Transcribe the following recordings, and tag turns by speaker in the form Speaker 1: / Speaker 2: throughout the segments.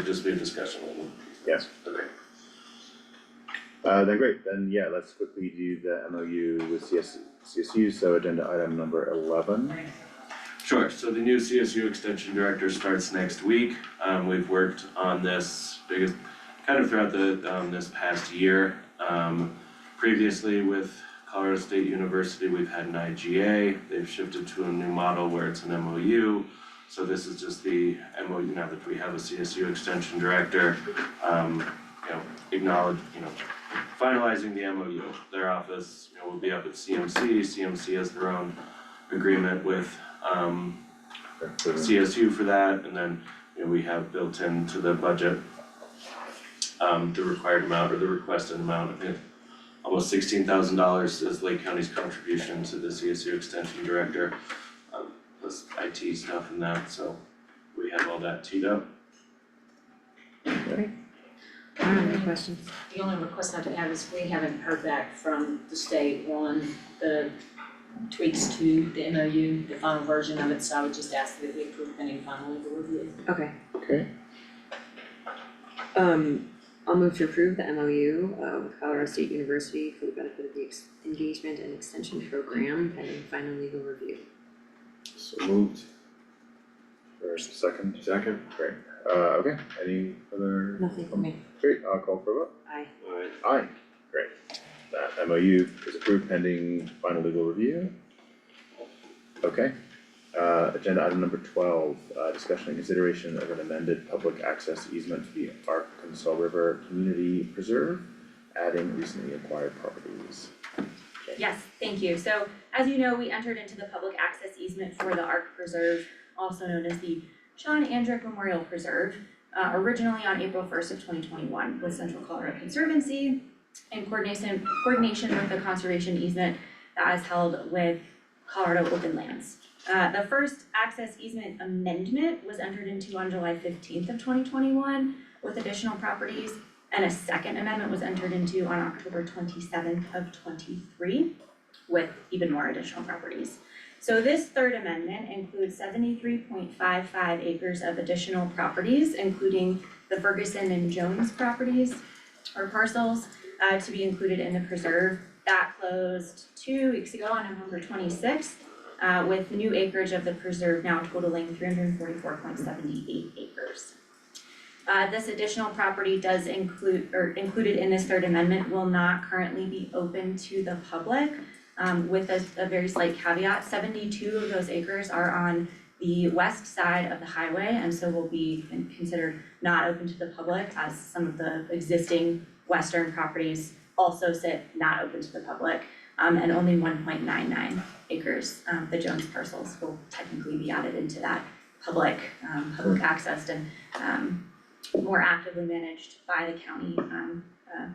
Speaker 1: It'll just be a discussion item.
Speaker 2: Yes.
Speaker 1: Okay.
Speaker 2: Uh, then great, then yeah, let's quickly do the MOU with CS, CSU, so agenda item number eleven.
Speaker 1: Sure, so the new CSU Extension Director starts next week. Um, we've worked on this biggest, kind of throughout the, um, this past year. Um, previously with Colorado State University, we've had an IGA. They've shifted to a new model where it's an MOU. So this is just the MOU now that we have a CSU Extension Director. Um, you know, acknowledge, you know, finalizing the MOU. Their office, you know, will be up at CMC. CMC has their own agreement with um CSU for that, and then, you know, we have built into the budget um the required amount or the requested amount, I think almost sixteen thousand dollars is Lake County's contribution to the CSU Extension Director. Um plus IT stuff and that, so we have all that teed up.
Speaker 3: I don't have any questions.
Speaker 4: The only request I'd have is we haven't heard back from the state on the tweaks to the MOU, the final version of it, so I would just ask that we approve pending final legal review.
Speaker 3: Okay,
Speaker 2: Okay.
Speaker 3: um, I'll move to approve the MOU uh, with Colorado State University for the benefit of the ex- engagement and extension program pending final legal review.
Speaker 2: So moved. First, second? Second. Great, uh, okay, any other?
Speaker 3: Nothing for me.
Speaker 2: Great, I'll call for a vote.
Speaker 3: Aye.
Speaker 1: Alright.
Speaker 2: Aye, great. That MOU is approved pending final legal review. Okay, uh, agenda item number twelve, uh, discussion and consideration of an amended public access easement to the Arkansas River Community Preserve, adding recently acquired properties.
Speaker 5: Yes, thank you. So as you know, we entered into the public access easement for the Ark Preserve, also known as the Sean Andrick Memorial Preserve, uh, originally on April first of twenty twenty-one with Central Colorado Conservancy in coordination, coordination with the conservation easement that is held with Colorado Open Lands. Uh, the first access easement amendment was entered into on July fifteenth of twenty twenty-one with additional properties and a second amendment was entered into on October twenty-seventh of twenty-three with even more additional properties. So this third amendment includes seventy-three point five five acres of additional properties, including the Ferguson and Jones properties or parcels uh, to be included in the preserve. That closed two weeks ago on November twenty-sixth uh, with new acreage of the preserve now totaling three hundred and forty-four point seventy-eight acres. Uh, this additional property does include, or included in this third amendment will not currently be open to the public. um, with a, a very slight caveat, seventy-two of those acres are on the west side of the highway and so will be con- considered not open to the public as some of the existing western properties also sit not open to the public. um, and only one point nine nine acres, um, the Jones parcels will technically be added into that public, um, public accessed and, um, more actively managed by the county um uh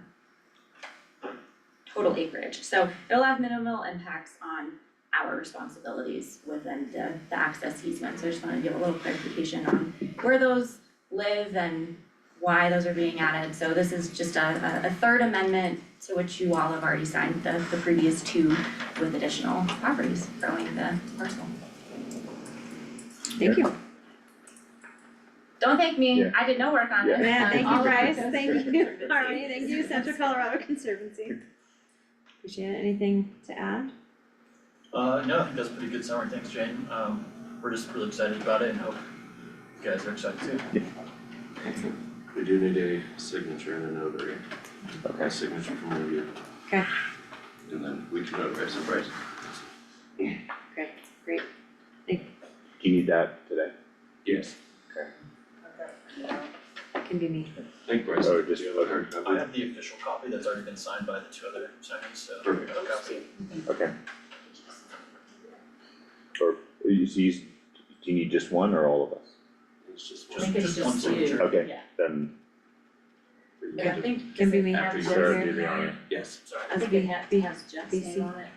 Speaker 5: total acreage, so it'll have minimal impacts on our responsibilities within the the access easement, so I just wanted to give a little clarification on where those live and why those are being added, so this is just a a a third amendment to which you all have already signed the the previous two with additional properties growing the parcel.
Speaker 3: Thank you.
Speaker 5: Don't thank me,
Speaker 2: Yeah.
Speaker 5: I did no work on
Speaker 2: Yeah.
Speaker 5: this, um, all of this.
Speaker 3: thank
Speaker 5: you,
Speaker 3: Harmony, thank you, Central Colorado Conservancy. Appreciate it, anything to add?
Speaker 6: Uh, no, I think that's a pretty good summary, thanks Jane, um, we're just really excited about it and hope you guys are excited too.
Speaker 1: We do need a signature and a notary, a
Speaker 2: Okay,
Speaker 1: signature from one of you.
Speaker 3: Okay.
Speaker 1: And then we can notarize the price.
Speaker 3: Great, great.
Speaker 2: do you need that today?
Speaker 1: Yes.
Speaker 3: Can be me.
Speaker 1: Thank Bryce.
Speaker 2: Or just-
Speaker 1: You have a hard
Speaker 6: I
Speaker 1: copy?
Speaker 6: have the official copy that's already been signed by the two other signers, so.
Speaker 1: Perfect.
Speaker 6: I'll copy.
Speaker 2: Okay. Or, you, so you, s- do you need just one or all of us?
Speaker 1: It's just
Speaker 4: I
Speaker 1: one.
Speaker 4: think it's
Speaker 6: Just one
Speaker 4: just you.
Speaker 6: signature.
Speaker 2: Okay,
Speaker 4: Yeah.
Speaker 2: then,
Speaker 4: Yeah, I think.
Speaker 3: Can be me.
Speaker 1: After you
Speaker 4: Has
Speaker 1: start,
Speaker 4: Jeff's
Speaker 2: do the
Speaker 4: name on
Speaker 2: honor.
Speaker 4: it?
Speaker 1: Yes,
Speaker 6: Sorry,
Speaker 3: As
Speaker 4: I think
Speaker 3: B-
Speaker 4: it has,
Speaker 3: B-
Speaker 4: has Jeff's
Speaker 3: BC.
Speaker 4: name on it.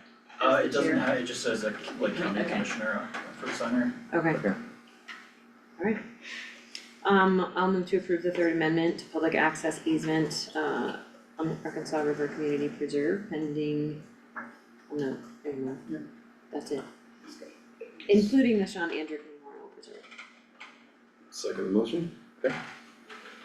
Speaker 6: uh,
Speaker 4: As the
Speaker 6: it doesn't
Speaker 4: chair.
Speaker 6: have, it just says like, like county
Speaker 4: Okay.
Speaker 6: commissioner uh, for the signer.
Speaker 3: Okay.
Speaker 2: Okay.
Speaker 3: Alright. Um, I'll move to approve the third amendment to public access easement, uh, on the Arkansas River Community Preserve pending, oh no, there you go. That's it. Including the Sean Andrew Memorial Preserve.
Speaker 7: Second motion?
Speaker 2: okay,